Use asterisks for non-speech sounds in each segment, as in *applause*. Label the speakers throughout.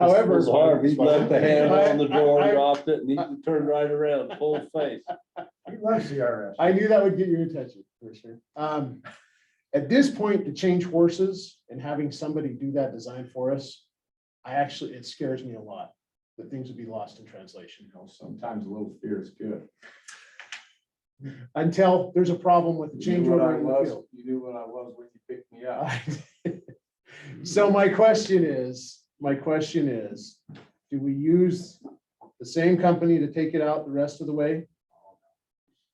Speaker 1: However.
Speaker 2: This is Harv, he left the hand on the door,
Speaker 1: I- I-
Speaker 2: dropped it, and he turned right around, full
Speaker 1: *laughs*
Speaker 2: face.
Speaker 3: He loves CRS.
Speaker 1: I knew that would get your attention, Commissioner. Um, at this point, to change horses and having somebody do that design for us, I actually, it scares me a lot, that things would be lost in translation.
Speaker 3: You know, sometimes a little fear is good.
Speaker 1: Until there's a problem with the
Speaker 3: You
Speaker 1: change
Speaker 3: knew what
Speaker 1: order
Speaker 3: I
Speaker 1: in the
Speaker 3: was-
Speaker 1: field.
Speaker 3: You knew what I was when you picked me up.
Speaker 1: *laughs* So my question is, my question is, do we use the same company to take it out the rest of the way?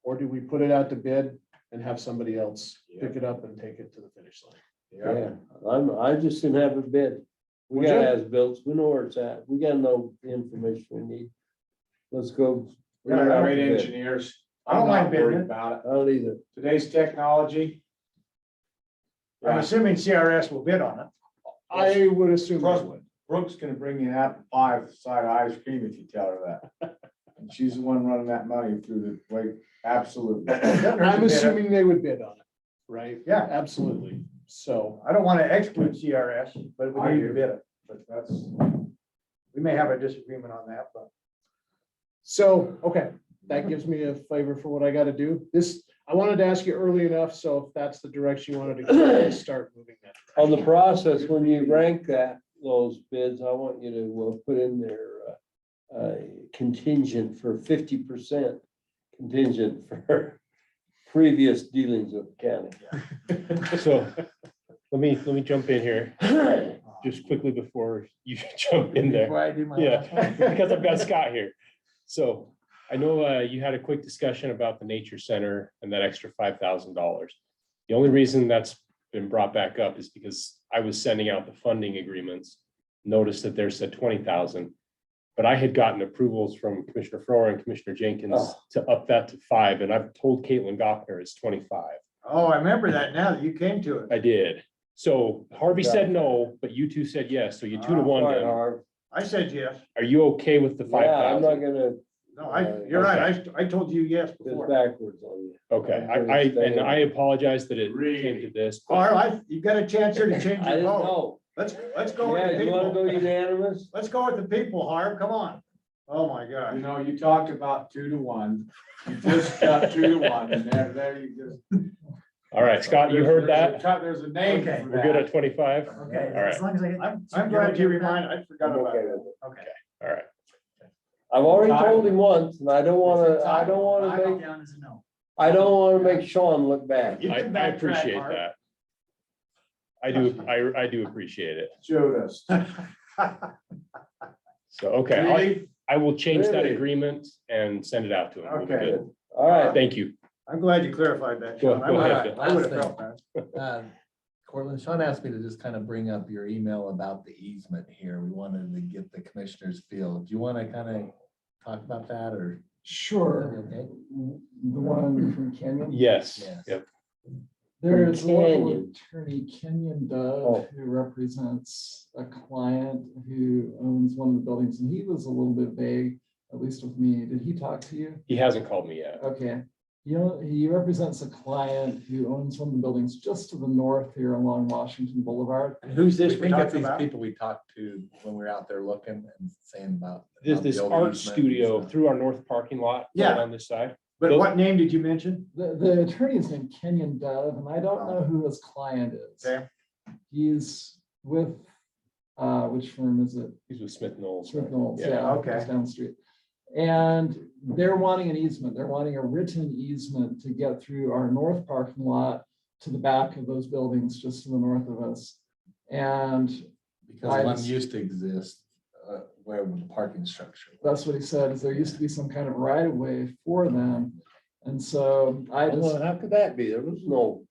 Speaker 1: Or do we put it out to bid and have somebody else pick it up and take it to the finish line?
Speaker 3: Yeah,
Speaker 2: Yeah, I'm, I just didn't have a bid. We
Speaker 1: Would
Speaker 2: got
Speaker 1: you?
Speaker 2: as built, we know where it's at, we got no information we need. Let's go.
Speaker 3: we got great engineers.
Speaker 4: I don't
Speaker 3: I'm not
Speaker 4: mind bidding
Speaker 3: worried
Speaker 4: it.
Speaker 3: About it.
Speaker 2: I don't either.
Speaker 3: Today's technology.
Speaker 4: I'm
Speaker 3: Yeah,
Speaker 4: assuming CRS will bid on it.
Speaker 1: I would assume.
Speaker 3: Trust me, Brooke's gonna bring you an apple pie with side ice cream if you tell her that.
Speaker 4: *laughs*
Speaker 3: And she's the one running that money through the, like,
Speaker 4: *coughs*
Speaker 3: absolutely.
Speaker 1: I'm assuming they would bid on it, right?
Speaker 4: Yeah,
Speaker 1: Absolutely. So,
Speaker 4: I don't want to exclude CRS, but we
Speaker 3: I
Speaker 4: need to
Speaker 3: do.
Speaker 4: bid it.
Speaker 3: But that's,
Speaker 4: We may have a disagreement on that, but
Speaker 1: so, okay, that gives me a flavor for what I gotta do. This, I wanted to ask you early enough, so if that's the direction you wanted to go, I'll start moving that.
Speaker 2: On the process, when you rank that, those bids, I want you to uh, put in there uh, uh, contingent for fifty percent contingent for *laughs* previous dealings with the
Speaker 5: So let me, let me jump in here
Speaker 2: county.
Speaker 5: just quickly before you *laughs* jump in there. Yeah, *laughs* because I've got Scott here. So I know uh, you had a quick discussion about the nature center and that extra five thousand dollars. The only reason that's been brought back up is because I was sending out the funding agreements. Noticed that there said twenty thousand. But I had gotten approvals from Commissioner Frower and Commissioner Jenkins
Speaker 2: Oh.
Speaker 5: to up that to five, and I've told Caitlin Goffner it's twenty-five.
Speaker 4: oh, I remember that now that you came to it.
Speaker 5: I did. So Harvey said no, but you two said yes, so you two to
Speaker 4: Ah,
Speaker 5: one.
Speaker 2: Fine,
Speaker 5: then.
Speaker 2: Harv.
Speaker 4: I said yes.
Speaker 5: Are you okay with the
Speaker 2: Yeah,
Speaker 5: five
Speaker 2: I'm not
Speaker 5: thousand?
Speaker 2: gonna
Speaker 4: No, I, you're right. I, st- I told you yes
Speaker 2: go
Speaker 4: before.
Speaker 2: backwards on you.
Speaker 5: Okay, I,
Speaker 2: I'm
Speaker 5: I,
Speaker 2: gonna
Speaker 5: and
Speaker 2: stay.
Speaker 5: I apologize that it came to this. but
Speaker 4: Carl, I, you got a chance here to change
Speaker 2: I
Speaker 4: your
Speaker 2: didn't
Speaker 4: vote.
Speaker 2: know.
Speaker 4: Let's, let's Oh. go with
Speaker 2: Yeah,
Speaker 4: the
Speaker 2: you wanna go
Speaker 4: people.
Speaker 2: unanimous?
Speaker 4: Let's go with the people, Harv. Come on. Oh, my
Speaker 3: you
Speaker 4: gosh.
Speaker 3: know, you talked about two to one. You just got two to one and there, there you just.
Speaker 5: All right, Scott, you heard
Speaker 3: There's-
Speaker 5: that?
Speaker 3: There's a name
Speaker 4: Okay.
Speaker 3: for
Speaker 5: We're good
Speaker 3: that.
Speaker 5: at twenty-five?
Speaker 4: Okay,
Speaker 5: All right.
Speaker 4: as long as I get. I'm, I'm glad you reminded. I forgot
Speaker 2: I'm
Speaker 4: about
Speaker 2: okay
Speaker 4: it.
Speaker 2: with it.
Speaker 4: Okay.
Speaker 5: All right.
Speaker 2: I've already told him once, and I don't wanna, I don't wanna make,
Speaker 4: down as a no.
Speaker 2: I don't wanna make Sean look bad.
Speaker 4: You
Speaker 5: I,
Speaker 4: can
Speaker 5: I
Speaker 4: backtrack,
Speaker 5: appreciate
Speaker 4: Mark.
Speaker 5: that. I do, I, I do appreciate it.
Speaker 3: Showed us.
Speaker 5: So, okay, I'll-
Speaker 3: Really?
Speaker 5: I will change that
Speaker 2: Really?
Speaker 5: agreement and send it out to him. We'll be
Speaker 4: Okay.
Speaker 5: good.
Speaker 2: All right,
Speaker 5: Thank you.
Speaker 4: I'm glad you clarified that.
Speaker 5: Go-
Speaker 4: Sean. I
Speaker 5: go
Speaker 4: would-
Speaker 5: ahead, Bill.
Speaker 4: I would have felt that.
Speaker 6: Um, Cortland, Sean asked me to just kind of bring up your email about the easement here. We wanted to get the commissioner's feel. Do you want to kind of talk about that or?
Speaker 7: Sure,
Speaker 6: Okay.
Speaker 7: the one from Kenyon.
Speaker 5: Yes,
Speaker 6: Yes.
Speaker 5: yep,
Speaker 7: There is local
Speaker 2: Kenyon.
Speaker 7: attorney Kenyon
Speaker 2: Oh.
Speaker 7: Dove, who represents a client who owns one of the buildings, and he was a little bit vague, at least with me. Did he talk to you?
Speaker 5: he hasn't called me yet.
Speaker 7: Okay, you know, he represents a client who owns one of the buildings just to the north here along Washington Boulevard.
Speaker 4: And who's
Speaker 6: I
Speaker 4: this we're
Speaker 6: think that's
Speaker 4: talking
Speaker 6: these
Speaker 4: about?
Speaker 6: people we talked to when we were out there looking and saying about.
Speaker 5: This,
Speaker 6: about the
Speaker 5: this
Speaker 6: old
Speaker 5: art
Speaker 6: easement and
Speaker 5: studio
Speaker 6: stuff.
Speaker 5: through our north parking lot.
Speaker 4: Yeah.
Speaker 5: right On this side.
Speaker 4: But what name did you mention?
Speaker 7: The, the attorney is named Kenyon Dove, and I don't know who his client is.
Speaker 4: Okay.
Speaker 7: He's with, uh, which firm is it?
Speaker 5: He's with Smith Knowles.
Speaker 7: Smith Knowles,
Speaker 5: Yeah,
Speaker 7: yeah,
Speaker 4: okay.
Speaker 7: it's down the street. And they're wanting an easement, they're wanting a written easement to get through our north parking lot to the back of those buildings just to the north of us. And
Speaker 6: Because one
Speaker 7: I've-
Speaker 6: used to exist, uh, where the parking structure. was.
Speaker 7: that's what he said, is there used to be some kind of right of way for them. And so I just,
Speaker 2: Well, how could that be? There was no,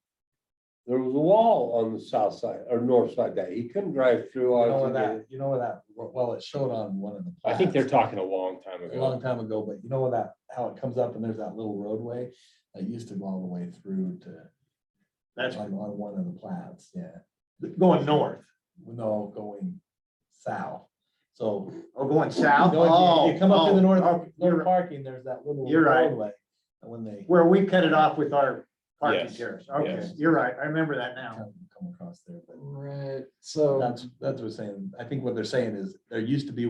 Speaker 2: there was a wall on the south side or north side that he couldn't drive through.
Speaker 6: You know where
Speaker 2: onto the-
Speaker 6: that, you know where that, well, it showed on one of the.
Speaker 5: I think they're
Speaker 6: plats.
Speaker 5: talking a long time
Speaker 6: a
Speaker 5: ago.
Speaker 6: long time ago, but you know where that, how it comes up and there's that little roadway that used to go all the way through to.
Speaker 4: That's
Speaker 6: Like on one of the plats, yeah,
Speaker 4: going north
Speaker 6: no, going south, so.
Speaker 4: or Oh, going
Speaker 6: you
Speaker 4: south.
Speaker 6: know, if You
Speaker 4: Oh,
Speaker 6: you come up to the
Speaker 4: oh,
Speaker 6: north,
Speaker 4: oh, you're
Speaker 6: north
Speaker 4: right.
Speaker 6: parking, there's that little
Speaker 4: You're right.
Speaker 6: roadway. And when they.
Speaker 4: Where we cut it off with our parking
Speaker 5: Yes,
Speaker 4: terrace. Okay,
Speaker 5: yes.
Speaker 4: you're right. I remember that now.
Speaker 6: come- come come across there, but
Speaker 7: Right, so.
Speaker 6: that's, that's what we're saying. I think what they're saying is there used to be